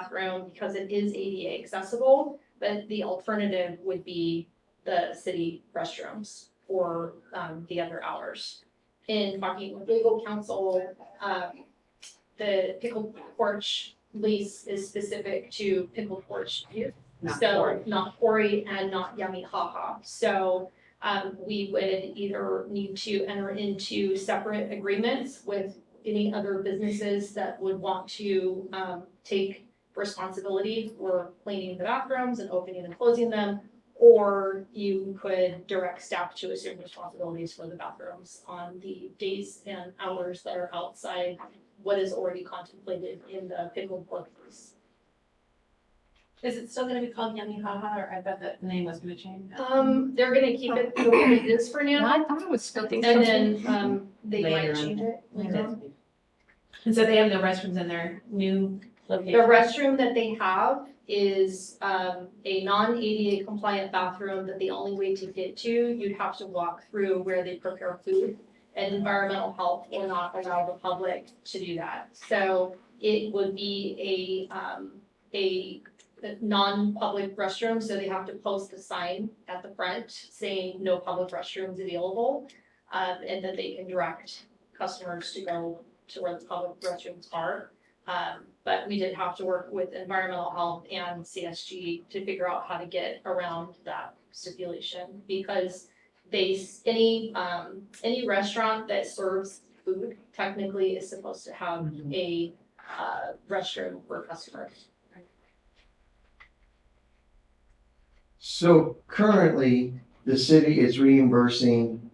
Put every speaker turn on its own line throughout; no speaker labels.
bathroom because it is ADA accessible, but the alternative would be the city restrooms for um the other hours. In talking with legal counsel, um the pickle porch lease is specific to pickle porch use.
Not
So
quarry.
not quarry and not yummy haha. So um we would either need to enter into separate agreements with any other businesses that would want to um take responsibility for cleaning the bathrooms and opening and closing them. Or you could direct staff to assume responsibilities for the bathrooms on the days and hours that are outside what is already contemplated in the pickle book.
Is it still gonna be called Yummy Haha, or I bet that name was gonna change?
Uh,
Um, they're gonna keep it the way it is for now,
I thought it was still.
and then
uh,
um they might
Later on.
change it.
It is. And so they have the restrooms in their new
The
location?
restroom that they have is um a non-ADA compliant bathroom that the only way to get to, you'd have to walk through where they prepare food. And environmental health will not allow the public to do that. So it would be a um a non-public restroom, so they have to post a sign at the front saying no public restrooms available. Um and that they can direct customers to go to where the public restrooms are. Um, but we did have to work with environmental health and CSG to figure out how to get around that stipulation because they, s- any, um, any restaurant that serves food technically is supposed to have a, uh, restroom for customers.
So currently, the city is reimbursing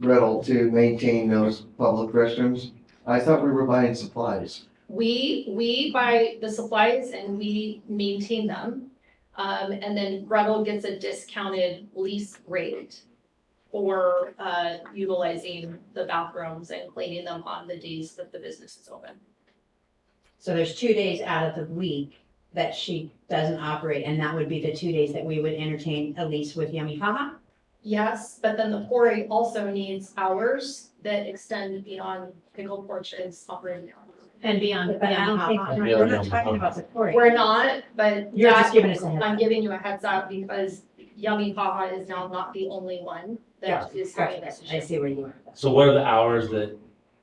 Gretel to maintain those public restrooms. I thought we were buying supplies.
We, we buy the supplies and we maintain them. Um, and then Gretel gets a discounted lease rate for, uh, utilizing the bathrooms and cleaning them on the days that the business is open.
So there's two days out of the week that she doesn't operate, and that would be the two days that we would entertain a lease with Yummy Haha.
Yes, but then the quarry also needs hours that extend beyond pickle porches operating hours.
And beyond
But I
Yummy
don't think,
Haha?
we're not talking about the quarry.
We're not, but
You're
that-
just giving us a heads
I'm
up.
giving you a heads up because Yummy Haha is now not the only one that is having
Right,
this
I
issue.
see where you are.
So what are the hours that,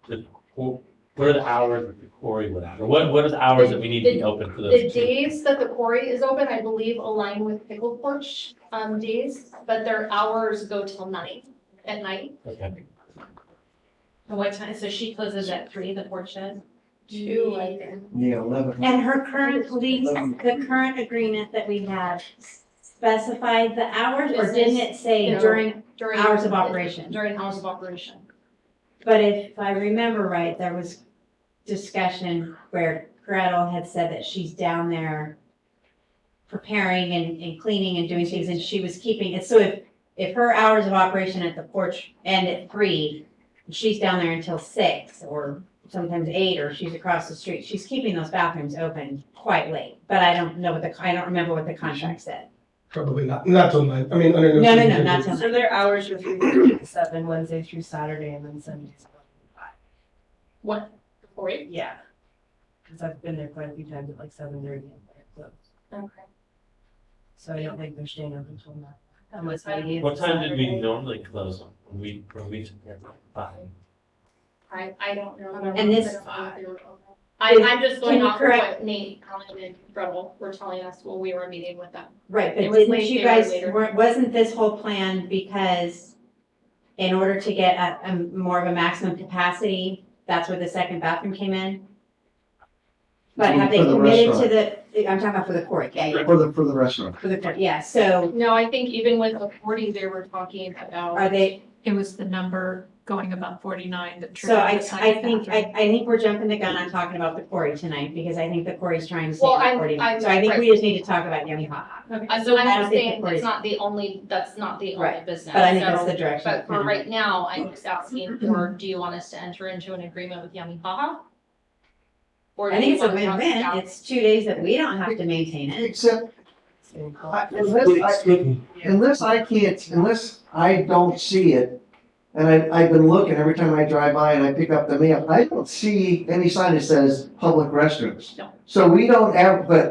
the, qu- what are the hours that the quarry would have? Or what, what are the hours that we need to be open for
The
those two?
days that the quarry is open, I believe, align with pickle porch um days, but their hours go till nine at night.
Okay.
And what time, so she closes at three, the porch does?
Two, I think.
Yeah, eleven.
And her current lease, the current agreement that we have specified the hours, or didn't it say
Business.
during,
During
Hours of operation.
During hours of operation.
But if I remember right, there was discussion where Gretel had said that she's down there preparing and, and cleaning and doing things, and she was keeping it. So if, if her hours of operation at the porch end at three, she's down there until six or sometimes eight, or she's across the street, she's keeping those bathrooms open quite late. But I don't know what the, I don't remember what the contract said.
Probably not, not till nine, I mean, under.
No, no, no,
circumstances.
not till
So their hours are three to seven, Wednesday through Saturday, and then Sundays.
What, the quarry?
Yeah. Cause I've been there quite a few times at like seven thirty.
Okay.
So I don't think they're staying open until nine. Unless
maybe
What time did we normally close them? When we, when we, five?
I, I don't know.
And this-
I, I'm just going
Can you
off of what
correct-
Nate, Colin, and Gretel were telling us when we were meeting with them.
Right,
It
but
was
didn't
late
you
there
guys,
later.
weren't- wasn't this whole plan because in order to get a, a more of a maximum capacity, that's where the second bathroom came in? But have they
For the
committed to the, I'm talking about for the court, yeah, yeah,
For the, for the restaurant.
for the court, yeah, so
No, I think even with the forty, they were talking about.
are they,
It was the number going about forty-nine that triggered
so I,
the
I
second
think,
bathroom.
I, I think we're jumping the gun on talking about the quarry tonight, because I think the quarry's trying to stay
Well,
at
I'm-
forty-nine,
I'm-
so I think we
right.
just need to talk about Yummy Haha.
I'm,
So I
I'm
don't
just
think the
saying,
quarry-
it's not the only, that's not the only
Right,
business.
But I think that's
so-
the direction.
But
it's
for
gonna-
right now, I'm just asking for, do you want us to enter into an agreement with Yummy Haha? Or do
I think
you
it's a
want to talk
win-win,
about-
it's two days that we don't have to maintain it.
Except, I-
Well,
unless I, unless I can't, unless I don't see it And I, I've been looking, every time I drive by and I pick up the mail, I don't see any sign that says public restrooms.
No.
So we don't have, but